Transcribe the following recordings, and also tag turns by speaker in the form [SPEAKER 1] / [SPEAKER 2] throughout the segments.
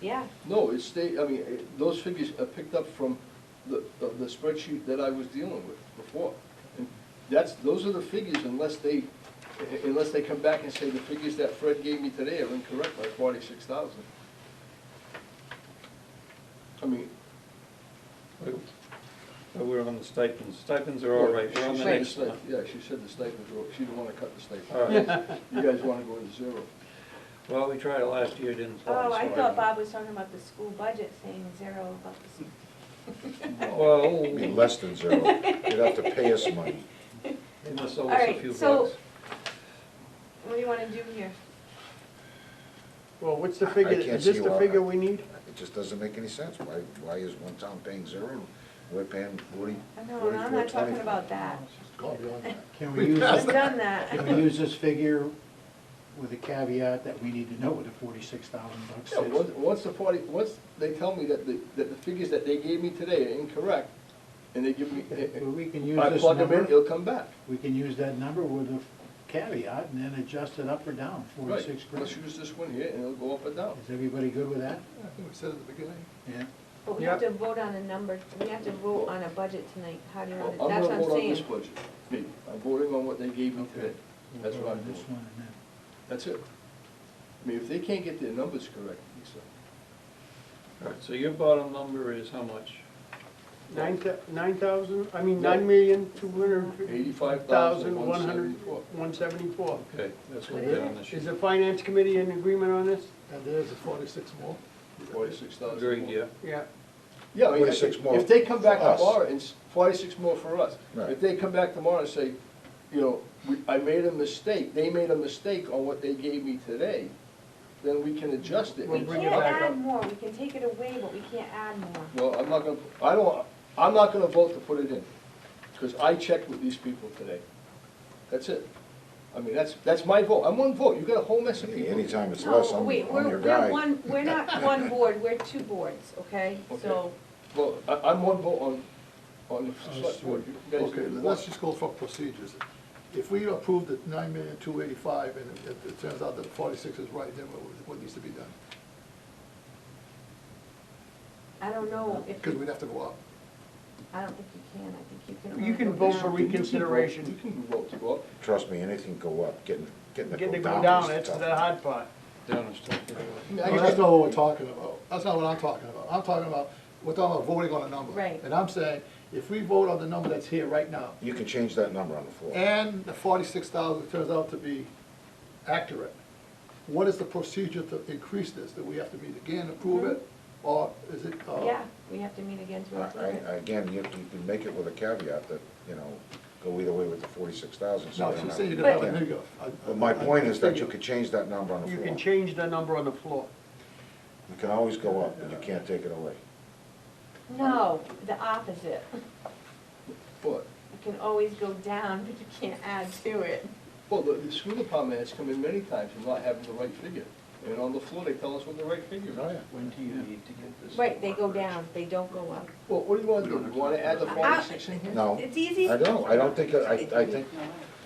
[SPEAKER 1] Yeah,
[SPEAKER 2] No, it's state, I mean, it- those figures are picked up from the, the the spreadsheet that I was dealing with before. And That's, those are the figures unless they, u- unless they come back and say the figures that Fred gave me today are incorrect by forty-six thousand. I mean.
[SPEAKER 3] We- We're on the stipends, stipends are all right, we're on the
[SPEAKER 2] she said
[SPEAKER 3] next
[SPEAKER 2] sti-
[SPEAKER 3] one.
[SPEAKER 2] Yeah, she said the stipends were, she didn't wanna cut the stipend.
[SPEAKER 3] All right.
[SPEAKER 2] You guys wanna go to zero.
[SPEAKER 3] Well, we tried it last year, didn't fly.
[SPEAKER 1] oh, I
[SPEAKER 3] so
[SPEAKER 1] thought Bob was talking about the school budget, saying zero about the school.
[SPEAKER 3] Well,
[SPEAKER 4] It'd be less than zero. You'd have to pay us money.
[SPEAKER 3] they must owe
[SPEAKER 1] All
[SPEAKER 3] us a
[SPEAKER 1] right,
[SPEAKER 3] few
[SPEAKER 1] so-
[SPEAKER 3] bucks.
[SPEAKER 1] What do you wanna do here?
[SPEAKER 5] Well, what's the
[SPEAKER 4] I- I
[SPEAKER 5] figure,
[SPEAKER 4] can't
[SPEAKER 5] is this
[SPEAKER 4] see
[SPEAKER 5] the
[SPEAKER 4] why-
[SPEAKER 5] figure we need?
[SPEAKER 4] It just doesn't make any sense. Why, why is one town paying zero and we're paying forty,
[SPEAKER 1] I know, and
[SPEAKER 4] forty-four,
[SPEAKER 1] I'm
[SPEAKER 4] twenty?
[SPEAKER 1] not talking about that.
[SPEAKER 4] Go beyond that.
[SPEAKER 5] Can we use,
[SPEAKER 1] I've
[SPEAKER 5] this-
[SPEAKER 1] done that.
[SPEAKER 5] can we use this figure with a caveat that we need to know what the forty-six thousand bucks
[SPEAKER 2] Yeah, once,
[SPEAKER 5] is?
[SPEAKER 2] once the forty, once they tell me that the, that the figures that they gave me today are incorrect, and they give me,
[SPEAKER 5] Well, We can use
[SPEAKER 2] I
[SPEAKER 5] this
[SPEAKER 2] plug them in,
[SPEAKER 5] number,
[SPEAKER 2] it'll come back.
[SPEAKER 5] we can use that number with a caveat and then adjust it up or down,
[SPEAKER 2] Right,
[SPEAKER 5] forty-six grand.
[SPEAKER 2] let's use this one here, and it'll go up and down.
[SPEAKER 5] Is everybody good with that?
[SPEAKER 2] I think we said at the beginning.
[SPEAKER 5] Yeah.
[SPEAKER 1] But we have
[SPEAKER 3] Yeah.
[SPEAKER 1] to vote on a number, we have to vote on a budget tonight, how do you want
[SPEAKER 2] I'm
[SPEAKER 1] to, that's what I'm
[SPEAKER 2] gonna vote on this
[SPEAKER 1] saying.
[SPEAKER 2] budget, me, I'm voting on what they gave me today,
[SPEAKER 5] We'll
[SPEAKER 2] That's
[SPEAKER 5] go
[SPEAKER 2] what
[SPEAKER 5] on
[SPEAKER 2] I'm
[SPEAKER 5] This
[SPEAKER 2] doing.
[SPEAKER 5] one and then.
[SPEAKER 2] that's it. I mean, if they can't get their numbers correct, Lisa,
[SPEAKER 3] All right, so your bottom number is how much?
[SPEAKER 6] Nine thou- nine thousand, I mean,
[SPEAKER 2] No.
[SPEAKER 6] nine million, two hundred and fifty
[SPEAKER 2] eighty-five
[SPEAKER 6] thousand,
[SPEAKER 2] thousand,
[SPEAKER 6] one
[SPEAKER 2] one
[SPEAKER 6] hundred,
[SPEAKER 2] seventy-four.
[SPEAKER 6] one seventy-four.
[SPEAKER 3] Okay, that's what
[SPEAKER 1] What
[SPEAKER 3] we're
[SPEAKER 1] is
[SPEAKER 3] on this
[SPEAKER 6] Is
[SPEAKER 3] year.
[SPEAKER 6] the finance committee in agreement on this?
[SPEAKER 7] And there's a forty-six more.
[SPEAKER 2] Forty-six thousand.
[SPEAKER 3] Agreed, yeah.
[SPEAKER 6] Yeah.
[SPEAKER 2] Yeah, I mean,
[SPEAKER 4] 46 more
[SPEAKER 2] if they come back
[SPEAKER 4] for us.
[SPEAKER 2] tomorrow, it's forty-six more for us.
[SPEAKER 4] Right.
[SPEAKER 2] If they come back tomorrow and say, you know, we, I made a mistake, they made a mistake on what they gave me today, then we can adjust it.
[SPEAKER 6] We'll
[SPEAKER 1] We
[SPEAKER 6] bring it
[SPEAKER 1] can't
[SPEAKER 6] back
[SPEAKER 1] add
[SPEAKER 6] up.
[SPEAKER 1] more, we can take it away, but we can't add more.
[SPEAKER 2] No, I'm not gonna, I don't, I'm not gonna vote to put it in, because I checked with these people today. That's it. I mean, that's, that's my vote, I'm one vote, you got a whole mess of people.
[SPEAKER 4] Anytime it's less,
[SPEAKER 1] No,
[SPEAKER 4] I'm, I'm
[SPEAKER 1] wait, we're,
[SPEAKER 4] your
[SPEAKER 1] we're
[SPEAKER 4] guy.
[SPEAKER 1] one, we're not one board, we're two boards, okay? So,
[SPEAKER 2] Well, I, I'm one vote on, on the select board, you guys
[SPEAKER 7] Okay,
[SPEAKER 2] do what
[SPEAKER 7] let's just go for procedures. If we approve the nine million, two eighty-five, and it, it turns out that forty-six is right, then what, what needs to be done?
[SPEAKER 1] I don't know if,
[SPEAKER 7] Because we'd have to go up.
[SPEAKER 1] I don't think you can, I think you can. only
[SPEAKER 6] You can vote for
[SPEAKER 1] down.
[SPEAKER 2] you can vote-
[SPEAKER 6] reconsideration.
[SPEAKER 2] You can vote to go up.
[SPEAKER 4] Trust me, anything go up, getting, getting it
[SPEAKER 6] Getting it
[SPEAKER 4] go
[SPEAKER 6] go
[SPEAKER 4] down
[SPEAKER 6] down,
[SPEAKER 4] is
[SPEAKER 6] that's
[SPEAKER 4] tough.
[SPEAKER 6] the hard part.
[SPEAKER 3] Down is tough.
[SPEAKER 2] I mean, I
[SPEAKER 7] Well,
[SPEAKER 2] guess
[SPEAKER 7] that's not what we're talking about. That's not what I'm talking about. I'm talking about, we're talking about voting on a number.
[SPEAKER 1] Right.
[SPEAKER 7] And I'm saying, if we vote on the number that's here right now,
[SPEAKER 4] You can change that number on the floor.
[SPEAKER 7] and the forty-six thousand turns out to be accurate, what is the procedure to increase this? Do we have to meet again, approve it, or is it, uh?
[SPEAKER 1] Yeah, we have to meet again
[SPEAKER 4] Oh.
[SPEAKER 1] to
[SPEAKER 4] I-
[SPEAKER 1] approve it.
[SPEAKER 4] I- Again, you, you can make it with a caveat that, you know, go either way with the forty-six thousand.
[SPEAKER 7] No, she's saying you don't have a nigger. I-
[SPEAKER 4] But my point is that you
[SPEAKER 7] I-
[SPEAKER 4] could change that number on the
[SPEAKER 6] You
[SPEAKER 4] floor.
[SPEAKER 6] can change the number on the floor.
[SPEAKER 4] You can always go up, but you can't take it away.
[SPEAKER 1] No, the opposite.
[SPEAKER 2] But,
[SPEAKER 1] You can always go down, but you can't add to it.
[SPEAKER 2] well, the, the school department has come in many times and not having the right figure. And on the floor, they tell us what the right figure
[SPEAKER 4] Oh,
[SPEAKER 2] is.
[SPEAKER 4] yeah.
[SPEAKER 5] When do you need to get this?
[SPEAKER 1] Right, they go down, they don't go up.
[SPEAKER 2] Well, what do you wanna do? You wanna add the forty-six in here?
[SPEAKER 4] No.
[SPEAKER 1] It's easy.
[SPEAKER 4] I don't, I don't think, I, I think,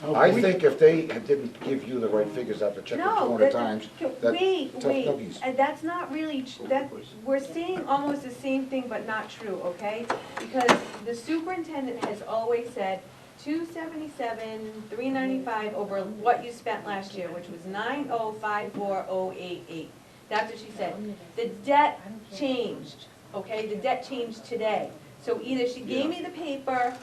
[SPEAKER 5] Oh,
[SPEAKER 4] I think if they didn't give you the right figures after checking two
[SPEAKER 1] No,
[SPEAKER 4] hundred
[SPEAKER 1] that-
[SPEAKER 4] times,
[SPEAKER 1] c-
[SPEAKER 4] that
[SPEAKER 1] wait,
[SPEAKER 4] tough
[SPEAKER 1] wait,
[SPEAKER 4] cookies.
[SPEAKER 1] Uh, that's not really, tr- that, we're saying almost the same thing, but not true, okay? Because the superintendent has always said, two seventy-seven, three ninety-five over what you spent last year, which was nine oh five four oh eight eight. That's what she said. The debt changed, okay, the debt changed today. So either she gave me the paper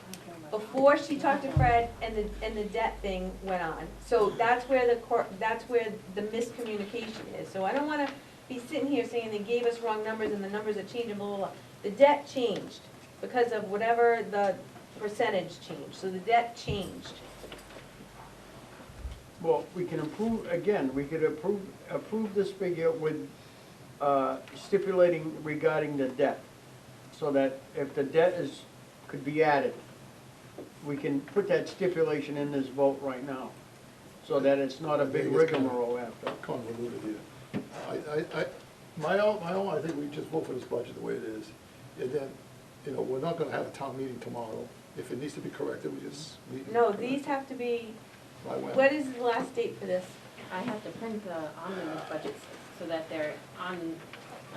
[SPEAKER 1] before she talked to Fred and the, and the debt thing went on. So that's where the cor, that's where the miscommunication is. So I don't wanna be sitting here saying they gave us wrong numbers and the numbers are changing, blah, blah, blah. The debt changed because of whatever the percentage changed, so the debt changed.
[SPEAKER 6] Well, we can approve, again, we could approve, approve this figure with uh, stipulating regarding the debt, so that if the debt is, could be added, we can put that stipulation in this vote right now, so that it's not a big rigmarole after.
[SPEAKER 7] convoluted here. I, I, I, my own, my own, I think we just vote for this budget the way it is, and then, you know, we're not gonna have a town meeting tomorrow. If it needs to be corrected, we just meet. and
[SPEAKER 1] No,
[SPEAKER 7] correct.
[SPEAKER 1] these have to be,
[SPEAKER 7] By when?
[SPEAKER 1] what is the last date for this?
[SPEAKER 8] I have to print the omnibus budgets so that they're on